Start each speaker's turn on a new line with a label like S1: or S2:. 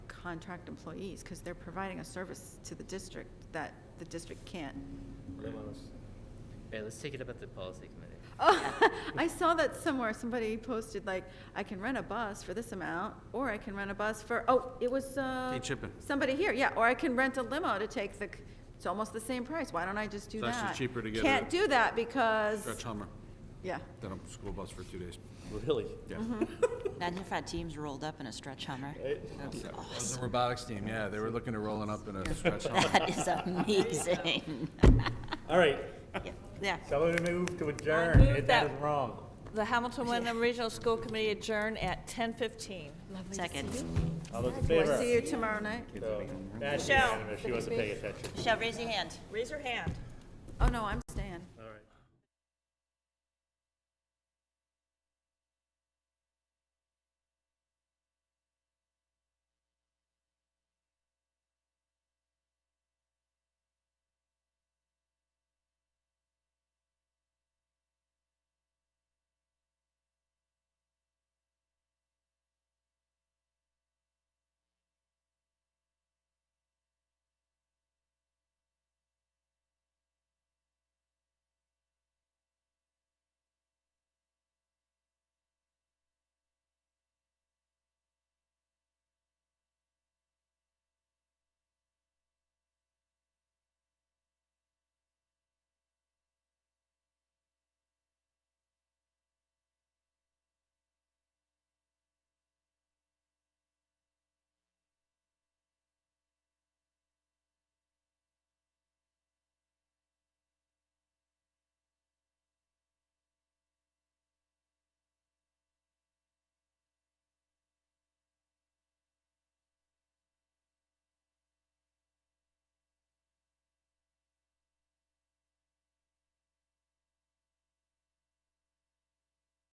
S1: contract employees, because they're providing a service to the district that the district can't.
S2: Right, let's take it up at the policy committee.
S1: Oh, I saw that somewhere, somebody posted like, I can rent a bus for this amount, or I can rent a bus for, oh, it was, uh.
S3: Kate Chippen.
S1: Somebody here, yeah, or I can rent a limo to take the, c- it's almost the same price, why don't I just do
S3: It's
S1: that?
S3: actually cheaper to get
S1: Can't
S3: a-
S1: do that because,
S3: Stretch Hummer,
S1: yeah,
S3: then a school bus for two days.
S2: Really?
S3: Yeah.
S4: Imagine if our teams rolled up in a stretch hummer. That'd be
S3: The
S4: awesome.
S3: robotics team, yeah, they were looking to rolling up in a stretch Hummer.
S4: That is amazing.
S5: All right,
S4: Yeah, Yeah,
S5: somebody move to adjourn,
S6: move
S5: if that
S6: that-
S5: is wrong.
S6: The Hamilton Wyndham Regional School Committee adjourn at 10:15.
S4: second.
S5: All those in
S1: we'll see
S5: favor?
S1: you tomorrow night.
S5: So, That's
S6: Michelle.
S5: unanimous, she wasn't paying attention.
S4: Michelle, raise your hand.
S6: Raise your hand.
S1: Oh, no, I'm staying.